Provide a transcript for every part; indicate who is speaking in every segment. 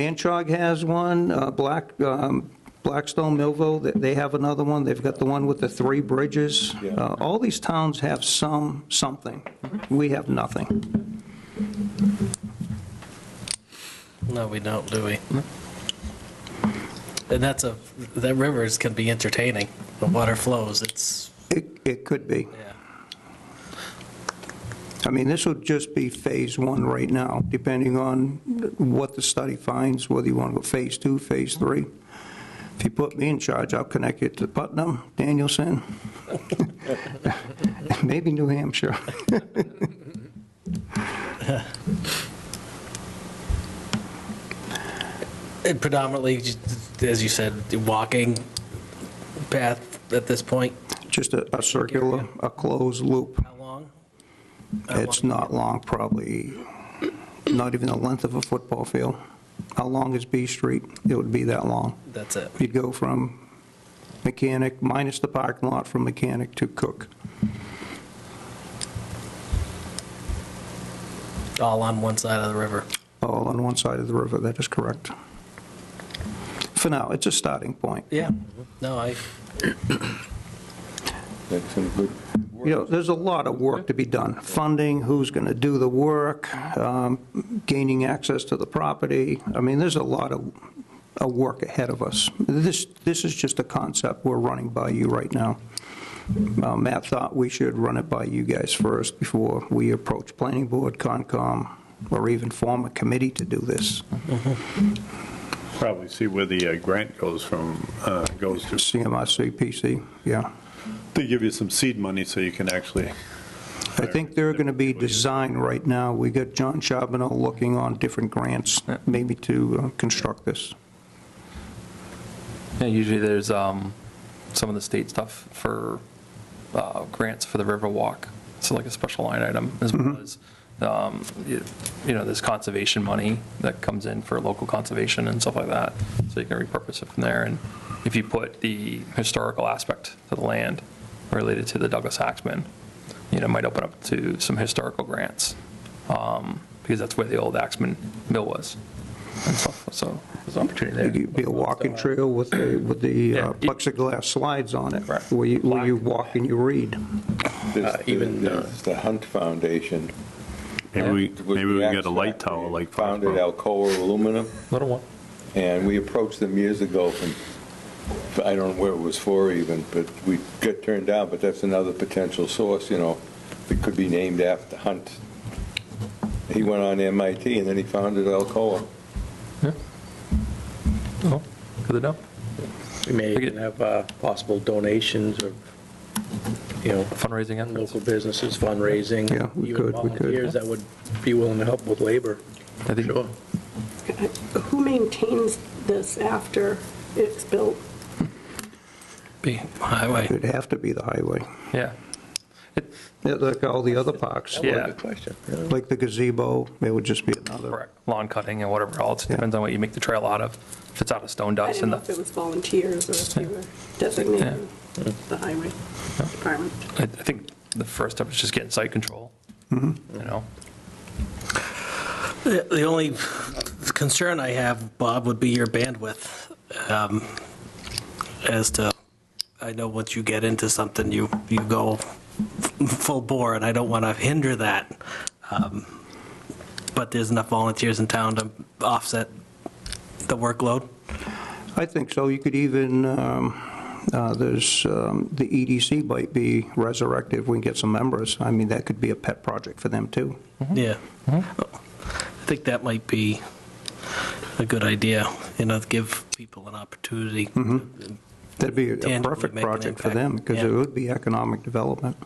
Speaker 1: Manchog has one, uh, Black, um, Blackstone, Millville, th- they have another one. They've got the one with the three bridges.
Speaker 2: Yeah.
Speaker 1: Uh, All these towns have some, something. We have nothing.
Speaker 3: No, we don't, do we? And that's a, that rivers can be entertaining. The water flows, it's,
Speaker 1: It it could be.
Speaker 3: yeah.
Speaker 1: I mean, this would just be Phase 1 right now, depending on what the study finds, whether you want to go Phase 2, Phase 3. If you put me in charge, I'll connect you to Putnam, Danielson, maybe New Hampshire.
Speaker 3: And predominantly, j- as you said, walking path at this point,
Speaker 1: Just a a circular, a closed loop.
Speaker 3: how long? How
Speaker 1: It's
Speaker 3: long?
Speaker 1: not long, probably not even the length of a football field. How long is B Street? It would be that long.
Speaker 3: That's it.
Speaker 1: You'd go from mechanic, minus the parking lot, from mechanic to cook.
Speaker 3: All on one side of the river.
Speaker 1: all on one side of the river, that is correct. For now, it's a starting point.
Speaker 3: Yeah, no, I,
Speaker 2: That's some good.
Speaker 1: You know, there's a lot of work to be done, funding, who's going to do the work, um, gaining access to the property. I mean, there's a lot of, of work ahead of us. This, this is just a concept we're running by you right now. Uh, Matt thought we should run it by you guys first before we approach planning board, Concom, or even form a committee to do this.
Speaker 4: Probably see where the uh, grant goes from, uh, goes to.
Speaker 1: CMRC, PC, yeah.
Speaker 4: They give you some seed money so you can actually,
Speaker 1: I think they're going to be designed right now. We got John Charbonneau looking on different grants, maybe to uh, construct this.
Speaker 5: Yeah, usually there's um, some of the state stuff for uh, grants for the Riverwalk. So like a special line item as well as, um, you you know, there's conservation money that comes in for local conservation and stuff like that. So you can repurpose it from there. And if you put the historical aspect to the land related to the Douglas Axman, you know, it might open up to some historical grants um, because that's where the old Axman mill was and stuff. So there's an opportunity there.
Speaker 1: It'd be a walking trail with the, with the uh,
Speaker 5: Yeah.
Speaker 1: plexiglass slides on it,
Speaker 5: Right.
Speaker 1: where you, where you walk and you read.
Speaker 2: There's the-
Speaker 6: even, uh,
Speaker 2: there's The Hunt Foundation.
Speaker 4: maybe we,
Speaker 2: It was
Speaker 4: maybe we
Speaker 2: the
Speaker 4: can get a light
Speaker 2: extract
Speaker 4: tower
Speaker 2: they
Speaker 4: like.
Speaker 2: Founded Alcoa Aluminum,
Speaker 5: Little one.
Speaker 2: and we approached them years ago from, I don't know where it was for even, but we got turned down, but that's another potential source, you know, that could be named after Hunt. He went on MIT and then he founded Alcoa.
Speaker 5: Oh, Good to know.
Speaker 6: We may
Speaker 5: Okay.
Speaker 6: even have uh, possible donations or, you know,
Speaker 5: Fundraising efforts.
Speaker 6: local businesses fundraising.
Speaker 1: Yeah, we
Speaker 6: even
Speaker 1: could, we could.
Speaker 6: volunteers that would be willing to help with labor.
Speaker 5: I think
Speaker 6: Sure.
Speaker 7: Who maintains this after it's built?
Speaker 3: be highway.
Speaker 1: It'd have to be the highway,
Speaker 5: Yeah. It-
Speaker 1: Yeah, like all the other parks.
Speaker 5: Yeah.
Speaker 2: Good question.
Speaker 1: Like the gazebo, it would just be another.
Speaker 5: Correct. Lawn cutting and whatever else.
Speaker 1: Yeah.
Speaker 5: Depends on what you make the trail out of. If it's out of stone
Speaker 7: I
Speaker 5: dust
Speaker 7: didn't
Speaker 5: and
Speaker 7: know if it
Speaker 5: the,
Speaker 7: was volunteers or if they were designated the highway department.
Speaker 5: I I think the first step is just getting site control. You know?
Speaker 3: The the only concern I have, Bob, would be your bandwidth um, as to, I know once you get into something, you, you go f- full bore, and I don't want to hinder that. Um, But there's enough volunteers in town to offset the workload.
Speaker 1: I think so. You could even, um, uh, there's, um, the EDC might be resurrected if we can get some members. I mean, that could be a pet project for them, too.
Speaker 3: Yeah. I think that might be a good idea, you know, give people an opportunity
Speaker 1: That'd be a
Speaker 3: tangibly
Speaker 1: perfect
Speaker 3: make an
Speaker 1: project for
Speaker 3: impact.
Speaker 1: them, because it
Speaker 3: Yeah.
Speaker 1: would be economic development.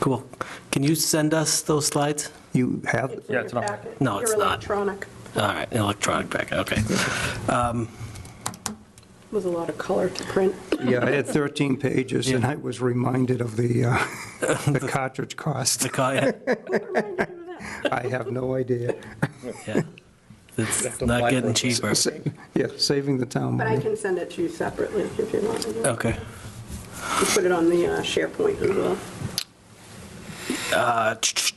Speaker 3: Cool. Can you send us those slides?
Speaker 1: You have,
Speaker 7: in
Speaker 5: Yeah,
Speaker 7: your
Speaker 5: it's not-
Speaker 7: packet.
Speaker 3: No, it's
Speaker 7: Your
Speaker 3: not.
Speaker 7: electronic
Speaker 3: All right, electronic packet, okay.
Speaker 7: was a lot of color to print.
Speaker 1: yeah, I had 13 pages, and I was reminded of the, uh, the cartridge cost.
Speaker 3: The co- yeah,
Speaker 1: I have no idea.
Speaker 3: yeah. It's not getting cheaper.
Speaker 1: Sa- Yeah, saving the town
Speaker 7: But I
Speaker 1: money.
Speaker 7: can send it to you separately if you want. You
Speaker 3: Okay.
Speaker 7: Put it on the uh, SharePoint as well.
Speaker 3: Uh, ch- ch-